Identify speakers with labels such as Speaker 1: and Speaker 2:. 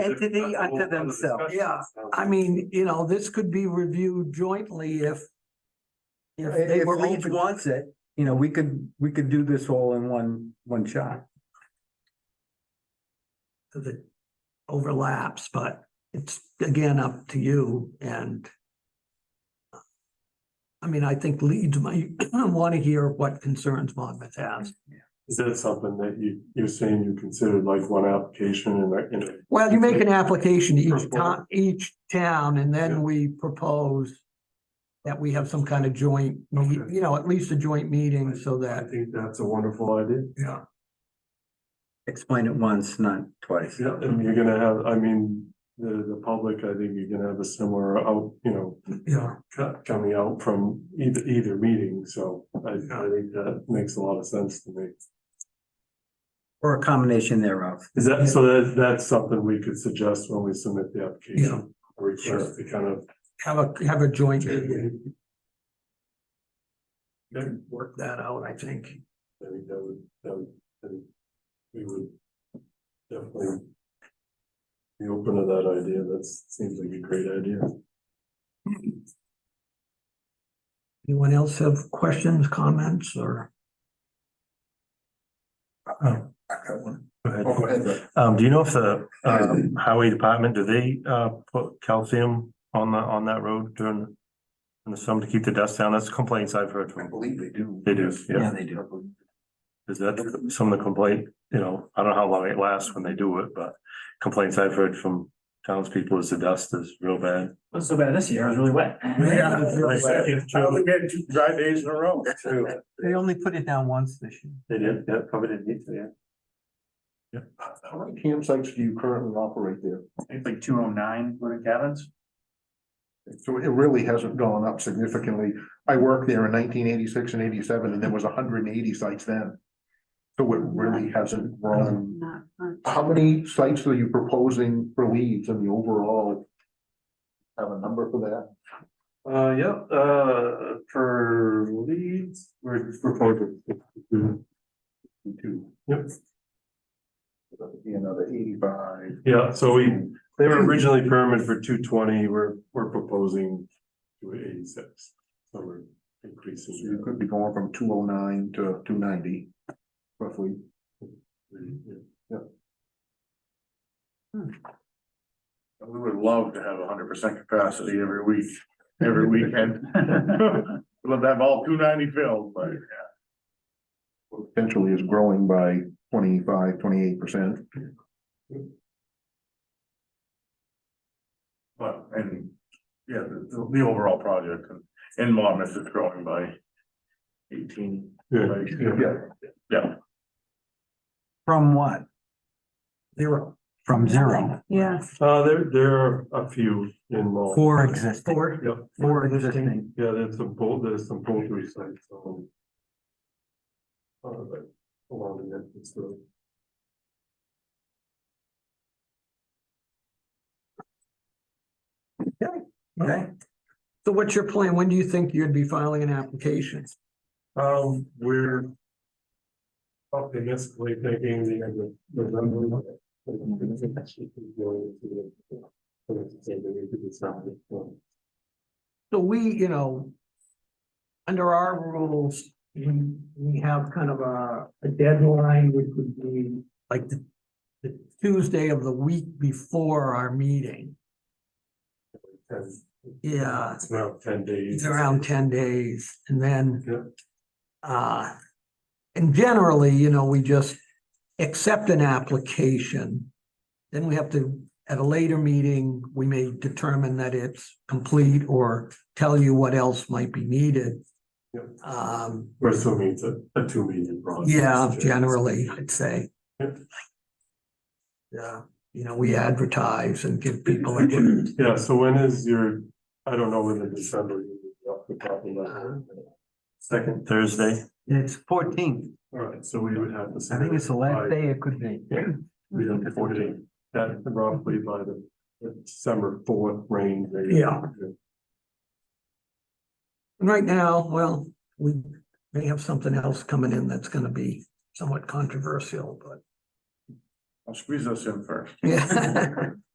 Speaker 1: entity unto themselves. Yeah, I mean, you know, this could be reviewed jointly if if they
Speaker 2: If
Speaker 1: were
Speaker 2: Leeds
Speaker 1: open.
Speaker 2: wants it, you know, we could, we could do this all in one, one shot.
Speaker 1: that overlaps, but it's again up to you and I mean, I think Leeds might want to hear what concerns Monmouth has.
Speaker 3: Is that something that you, you're saying you considered like one application and, like, you know,
Speaker 1: Well, you make an application to each
Speaker 3: First one.
Speaker 1: town, each town, and
Speaker 3: Yeah.
Speaker 1: then we propose that we have some kind of joint, meet-
Speaker 3: Okay.
Speaker 1: you know, at least a joint meeting so
Speaker 3: I
Speaker 1: that,
Speaker 3: think that's a wonderful idea.
Speaker 1: yeah.
Speaker 2: Explain it once, not twice.
Speaker 3: Yeah, and you're gonna have, I mean, the, the public, I think you're gonna have a similar out, you know,
Speaker 1: Yeah.
Speaker 3: co- coming out from either, either meeting, so I, I think that makes a lot of sense to me.
Speaker 2: Or a combination thereof.
Speaker 3: Is that, so that, that's something we could suggest when we submit the
Speaker 1: Yeah.
Speaker 3: application? a Request to kind of.
Speaker 1: Have a, have a joint meeting,
Speaker 3: Okay.
Speaker 1: work that out, I think.
Speaker 3: I think that would, that would, I think we would definitely be open to that idea. That seems like a great idea.
Speaker 1: Anyone else have questions, comments, or?
Speaker 4: Oh,
Speaker 3: Go ahead. Um, do you know if the, um, highway department, do they, uh, put calcium on the, on that road during in the summer to keep the dust down? That's complaints I've heard
Speaker 4: I
Speaker 3: from.
Speaker 4: believe they do.
Speaker 3: They do, yeah.
Speaker 2: they do.
Speaker 3: Is that some of the complaint, you know, I don't know how long it lasts when they do it, but complaints I've heard from townspeople is the dust is real bad.
Speaker 5: Wasn't so bad this year, it was really wet.
Speaker 3: two dry days in a row.
Speaker 2: They only put it down once this year.
Speaker 3: They did, yeah, probably didn't need to, yeah.
Speaker 4: How many campsites do you currently operate there?
Speaker 5: It's like two oh nine wooden cabins.
Speaker 4: So it really hasn't gone up significantly. I worked there in nineteen eighty-six and eighty-seven, and there was hundred and eighty sites then. So it really hasn't grown.
Speaker 6: Not much.
Speaker 4: How many sites are you proposing for leads in the overall? Have a number for that?
Speaker 3: Uh, yeah, uh, for leads, we're proposing.
Speaker 4: Two.
Speaker 3: Yep,
Speaker 4: That'd Be another eighty-five.
Speaker 3: yeah, so we, they were originally permitted for two twenty, we're, we're proposing two eighty-six. So we're
Speaker 4: So
Speaker 3: increasing.
Speaker 4: you could be going from two oh nine to two ninety, roughly.
Speaker 7: We would love to have hundred percent capacity every week, every weekend. We'd Love to have all two ninety filled, but
Speaker 4: Potentially is growing by 25, 28 percent.
Speaker 7: But, and, yeah, the, the- the overall project in- in Monmouth is growing by eighteen.
Speaker 3: Yeah,
Speaker 7: like,
Speaker 4: Yeah.
Speaker 7: Yeah,
Speaker 2: From what?
Speaker 1: Zero.
Speaker 2: From zero.
Speaker 6: Yeah.
Speaker 3: uh, there, there are a few involved.
Speaker 2: Four existing.
Speaker 1: Four,
Speaker 3: Yep,
Speaker 1: four existing.
Speaker 3: yeah, there's some bold, there's some poultry sites, so. Uh, like, along the entrance road.
Speaker 2: Okay.
Speaker 1: So what's your plan? When do you think you'd be filing an application?
Speaker 3: Um, we're optimistically thinking the end of November.
Speaker 1: So we, you know, under our rules, we, we have kind of a, a deadline, which would be like the, the Tuesday of the week before our meeting. Yeah,
Speaker 3: It's around ten
Speaker 1: it's
Speaker 3: days.
Speaker 1: around ten days and then
Speaker 3: Yeah.
Speaker 1: uh, and generally, you know, we just accept an application. Then we have to, at a later meeting, we may determine that it's complete or tell you what else might be needed.
Speaker 3: Yeah.
Speaker 1: Um,
Speaker 3: We're assuming it's a, a two meeting process.
Speaker 1: yeah, generally, I'd say.
Speaker 3: Yeah.
Speaker 1: Yeah, you know, we advertise and give people, a chance.
Speaker 3: Yeah, so when is your, I don't know whether December. you would be off the top of my
Speaker 1: Uh-huh.
Speaker 3: head. Second Thursday.
Speaker 2: It's fourteen.
Speaker 3: All right, so we would have to.
Speaker 2: I think it's the
Speaker 3: by-
Speaker 2: last day it could be.
Speaker 3: We don't afford it, that roughly by the the December fourth range. maybe.
Speaker 1: Yeah. And right now, well, we may have something else coming in that's gonna be somewhat controversial, but.
Speaker 7: I'll squeeze us in first.
Speaker 1: Yeah,